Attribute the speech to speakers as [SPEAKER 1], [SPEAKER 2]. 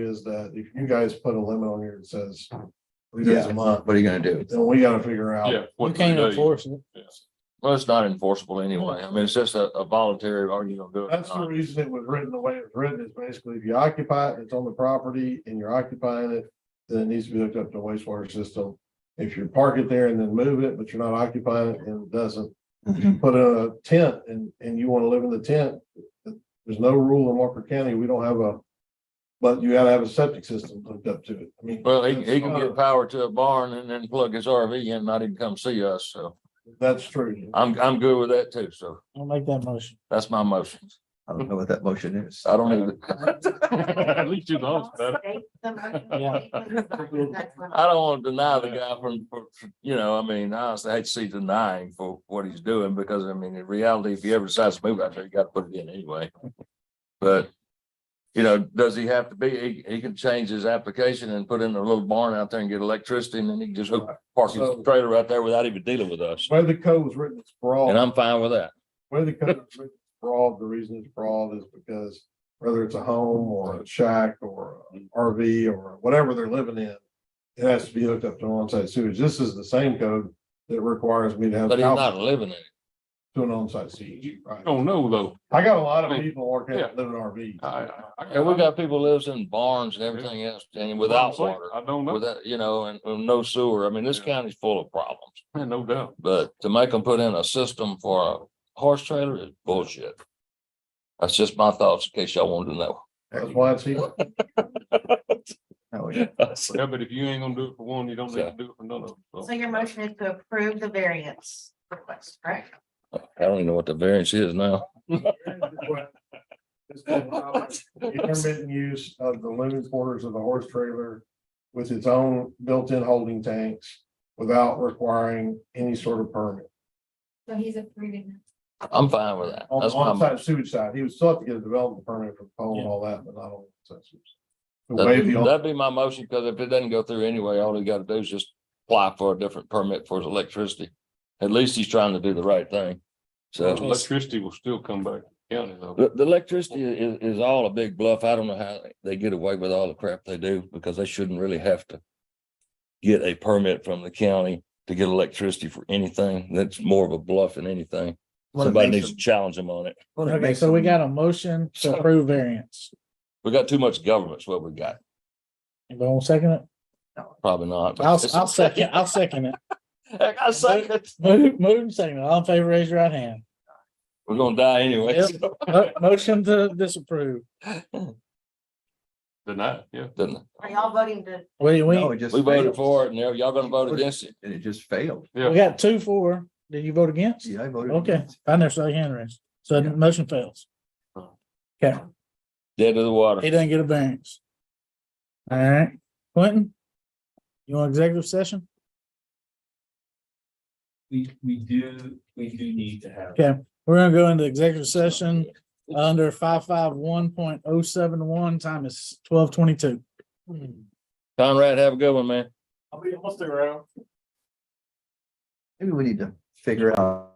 [SPEAKER 1] is that if you guys put a limit on here that says three days
[SPEAKER 2] Yeah.
[SPEAKER 1] a month,
[SPEAKER 2] What are you gonna do?
[SPEAKER 1] then we gotta figure out.
[SPEAKER 3] Yeah.
[SPEAKER 4] You
[SPEAKER 3] what do
[SPEAKER 4] can't
[SPEAKER 3] they-
[SPEAKER 4] enforce it.
[SPEAKER 3] yes.
[SPEAKER 5] Well, it's not enforceable anyway. I mean, it's just a, a voluntary, are you gonna do it? or
[SPEAKER 1] That's the
[SPEAKER 5] not?
[SPEAKER 1] reason it was written the way it was written is basically if you occupy it, it's on the property and you're occupying it, then it needs to be hooked up to wastewater system. If you park it there and then move it, but you're not occupying it and it doesn't, if you put in a tent and, and you want to live in the tent, there's no rule in Walker County. We don't have a, but you gotta have a septic system hooked up to it. I mean.
[SPEAKER 5] Well, he, he can
[SPEAKER 4] uh,
[SPEAKER 1] that's-
[SPEAKER 5] get power to a barn and then plug his RV in, and not even come see us. So
[SPEAKER 1] That's true.
[SPEAKER 5] I'm, I'm good with that too. So
[SPEAKER 4] I'll make that motion.
[SPEAKER 5] that's my motion.
[SPEAKER 2] I don't know what that motion is.
[SPEAKER 5] I don't even,
[SPEAKER 3] At least you know. it's better.
[SPEAKER 5] I don't want to deny the guy from, for- for- you know, I mean, I honestly hate to see denying for what he's doing because I mean, in reality, if he ever decides to move out there, you gotta put it in anyway. But, you know, does he have to be, he, he can change his application and put in a little barn out there and get electricity and then he can just hook, park his
[SPEAKER 1] So-
[SPEAKER 5] trailer out there without even dealing with us.
[SPEAKER 1] Where the code was written, it's broad.
[SPEAKER 5] And I'm fine with that.
[SPEAKER 1] Where the code is written broad, the reason it's broad is because whether it's a home or a shack or an RV or whatever they're living in. It has to be hooked up to an onsite sewage. This is the same code that requires me to have.
[SPEAKER 5] But he's
[SPEAKER 1] power
[SPEAKER 5] not living in it.
[SPEAKER 1] To an onsite sewage, right?
[SPEAKER 3] Don't know though.
[SPEAKER 1] I got a lot of people working,
[SPEAKER 3] Yeah.
[SPEAKER 1] living RVs.
[SPEAKER 3] I- I- I-
[SPEAKER 5] And we got people lives in barns and everything else and without water,
[SPEAKER 3] I don't know.
[SPEAKER 5] without, you know, and, and no sewer. I mean, this
[SPEAKER 3] Yeah.
[SPEAKER 5] county's full of problems.
[SPEAKER 3] No doubt.
[SPEAKER 5] But to make them put in a system for a horse trailer is bullshit. That's just my thoughts in case y'all wanted to know.
[SPEAKER 1] That's why it's here.
[SPEAKER 2] Oh, yeah.
[SPEAKER 3] Yeah, but if you ain't gonna do it for one, you don't need to do it for none of them. so.
[SPEAKER 6] So your motion is to approve the variance request, correct?
[SPEAKER 5] I don't even know what the variance is now.
[SPEAKER 1] Intermittent use of the living quarters of the horse trailer with its own built-in holding tanks without requiring any sort of permit.
[SPEAKER 7] So he's approving.
[SPEAKER 5] I'm fine with that.
[SPEAKER 1] On the
[SPEAKER 5] That's my, mo-
[SPEAKER 1] onsite sewage side, he would still have to get a development permit for the pole and all that, but not on. the onsite sewage. To waive
[SPEAKER 5] that'd
[SPEAKER 1] the
[SPEAKER 5] be-
[SPEAKER 1] on-
[SPEAKER 5] that'd be my motion, because if it doesn't go through anyway, all he gotta do is just apply for a different permit for his electricity. At least he's trying to do the right thing. So
[SPEAKER 3] Electricity will still come back. to the County though.
[SPEAKER 5] the, the electricity is, is all a big bluff. I don't know how they get away with all the crap they do because they shouldn't really have to get a permit from the county to get electricity for anything. That's more of a bluff than anything.
[SPEAKER 2] Well, it
[SPEAKER 5] Somebody
[SPEAKER 2] makes
[SPEAKER 5] needs to
[SPEAKER 2] them-
[SPEAKER 5] challenge them on it.
[SPEAKER 2] well, it
[SPEAKER 4] Okay,
[SPEAKER 2] makes
[SPEAKER 4] so we
[SPEAKER 2] them-
[SPEAKER 4] got a motion to approve variance.
[SPEAKER 5] We got too much government's what we got.
[SPEAKER 4] Anybody want to second it?
[SPEAKER 5] Probably not.
[SPEAKER 4] I'll, I'll second, I'll second it.
[SPEAKER 5] Heck, I second it.
[SPEAKER 4] Move, move and second. it. All in favor, raise your right hand.
[SPEAKER 5] We're gonna die anyway.
[SPEAKER 4] Mo- Motion to disapprove.
[SPEAKER 3] Deny, it, yeah.
[SPEAKER 5] Didn't
[SPEAKER 6] Are y'all voting to,
[SPEAKER 4] We, we,
[SPEAKER 2] No, it
[SPEAKER 4] we
[SPEAKER 2] just
[SPEAKER 5] We We voted
[SPEAKER 2] failed.
[SPEAKER 5] for it and now y'all gonna vote against it.
[SPEAKER 2] And it just failed.
[SPEAKER 4] got two for. Did you vote against?
[SPEAKER 2] Yeah, I voted.
[SPEAKER 4] Okay,
[SPEAKER 2] against.
[SPEAKER 4] I never saw your hand raised. So the motion fails.
[SPEAKER 5] Dead to the
[SPEAKER 4] He
[SPEAKER 5] water.
[SPEAKER 4] doesn't get a variance. All right, Quentin? You want executive session?
[SPEAKER 8] We, we do, we do need to have.
[SPEAKER 4] Okay, we're gonna go into executive session under five five one point oh seven one, time is twelve twenty-two.
[SPEAKER 5] Conrad, have a good one, man.
[SPEAKER 8] I'll be, I'll stay around.
[SPEAKER 2] Maybe we need to figure out